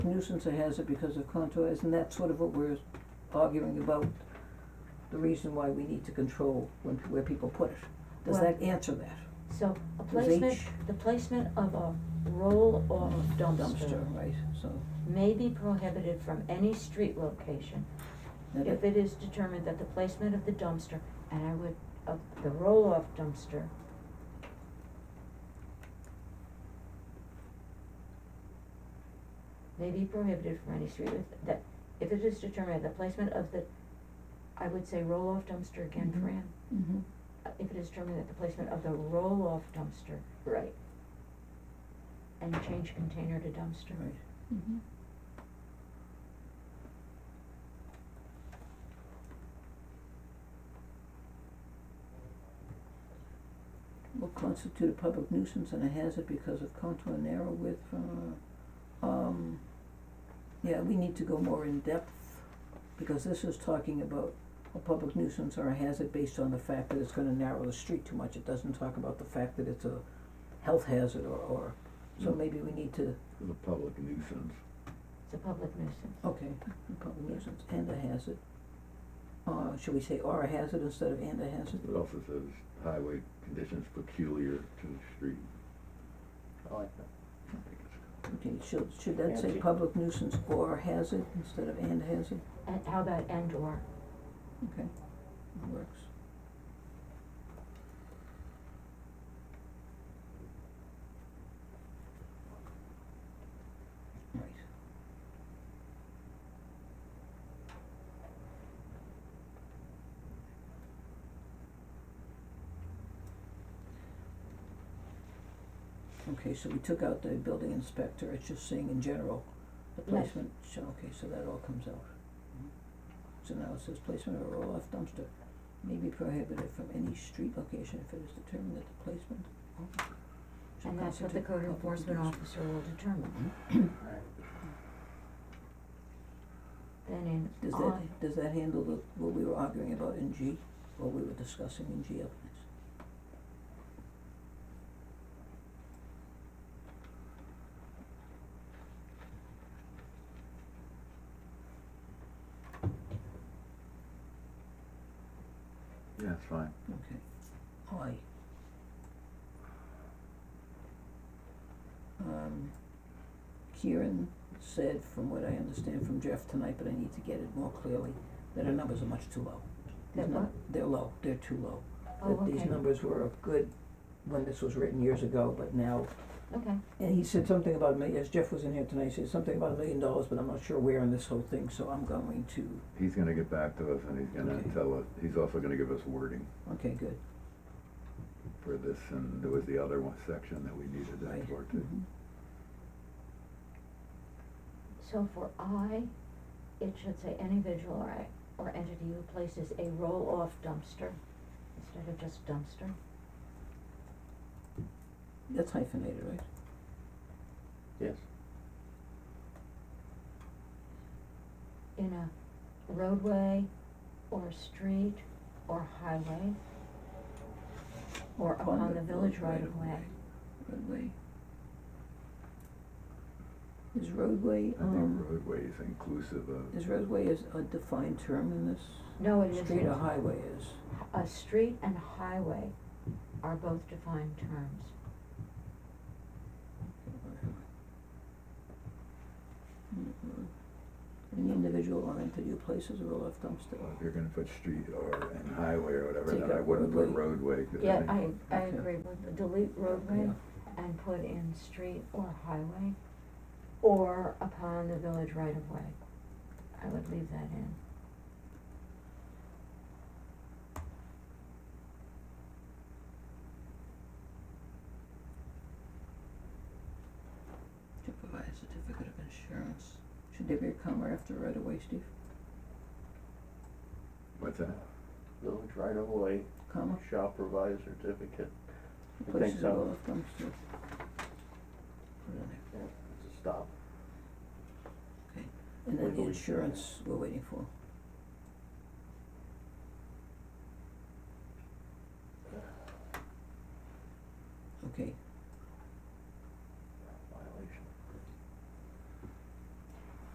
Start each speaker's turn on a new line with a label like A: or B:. A: nuisance or hazard because of contours, and that's sort of what we're arguing about, the reason why we need to control when, where people put it. Does
B: Well-
A: that answer that?
B: So a
A: Does
B: placement,
A: each-
B: the placement of a roll or a dumpster
A: Dumpster, right, so,
B: may be prohibited from any street location
A: that
B: if it is determined that the placement of the dumpster, and I would, of the roll-off dumpster may be prohibited from any street, with- that, if it is determined the placement of the, I would say roll-off dumpster again,
A: Mhm.
B: Fran,
A: Mhm.
B: uh, if it is determined that the placement of the roll-off dumpster. Right. And change container to dumpster.
A: Right.
C: Mm-hmm.
A: will constitute a public nuisance and a hazard because of contour and narrow width, uh, um, yeah, we need to go more in depth, because this is talking about a public nuisance or a hazard based on the fact that it's gonna narrow the street too much, it doesn't talk about the fact that it's a health hazard or, or, so
D: Mm.
A: maybe we need to,
D: The public nuisance.
B: It's a public nuisance.
A: okay, a public nuisance and a hazard. Uh, should we say or a hazard instead of and a hazard?
D: It also says highway conditions peculiar to the street.
E: I like that.
D: I think it's-
A: Okay, should, should that say
E: Angie.
A: public nuisance or hazard instead of and hazard?
B: And how about and or?
A: Okay, that works. Right. Okay, so we took out the building inspector, it's just saying in general, the
B: Yes.
A: placement, so, okay, so that all comes out. So now it says placement of a roll-off dumpster may be prohibited from any street location if it is determined that the placement should
B: And that's what the
A: constitute
B: code
A: public Hmm?
B: enforcement
A: nuisance.
B: officer will determine.
E: Alright.
B: Then in
A: Does
B: on,
A: that, does that handle the, what we were arguing about in G, or we were discussing in G up next?
D: Yeah, it's fine.
A: Okay. I. Um, Kieran said, from what I understand from Jeff tonight, but I need to get it more clearly, that our numbers are much too low. These
B: That
A: num-
B: what?
A: They're low, they're too low.
B: oh,
A: That these
B: okay,
A: numbers were good when this was written years ago, but now,
B: okay,
A: and he said something about a million, as Jeff was in here tonight, he said something about a million dollars, but I'm not sure where in this whole thing, so I'm going to,
D: He's gonna get back to us and he's gonna
A: Okay.
D: tell us, he's also gonna give us wording
A: okay, good.
D: for this and there was the other one section that we needed
A: Right.
D: that for too.
A: Mhm.
B: so for I, it should say any individual or I, or entity who places a roll-off dumpster instead of just dumpster.
A: That's hyphenated, right?
E: Yes.
B: in a roadway or a street or highway or upon the village right of way.
A: Roadway. Is roadway,
D: I think
A: um,
D: roadway is inclusive of.
A: is roadway is a defined term in this?
B: No, it
A: Street or
B: isn't.
A: highway is,
B: A street and highway are both defined terms.
A: Mm-mm. Any individual or entity who places a roll-off dumpster.
D: Well, uh, If you're gonna put street or and highway or whatever,
A: Take
D: then I
A: out
D: wouldn't put
A: roadway.
D: roadway, 'cause I
B: Yeah,
D: think
B: I, I
A: Okay.
B: agree with, delete roadway
A: Yeah.
B: and put in street or highway or upon the village right of way. I would leave that in.
A: To provide a certificate of insurance. Should there be a comma after right of way, Steve?
D: What's that?
E: Village right of way
A: Comma?
E: shall provide a certificate.
A: Who
E: I think
A: Places a
E: so.
A: roll-off dumpster. Put it in there.
E: Yeah, it's a stop.
A: And then the
E: Legally.
A: insurance we're waiting for.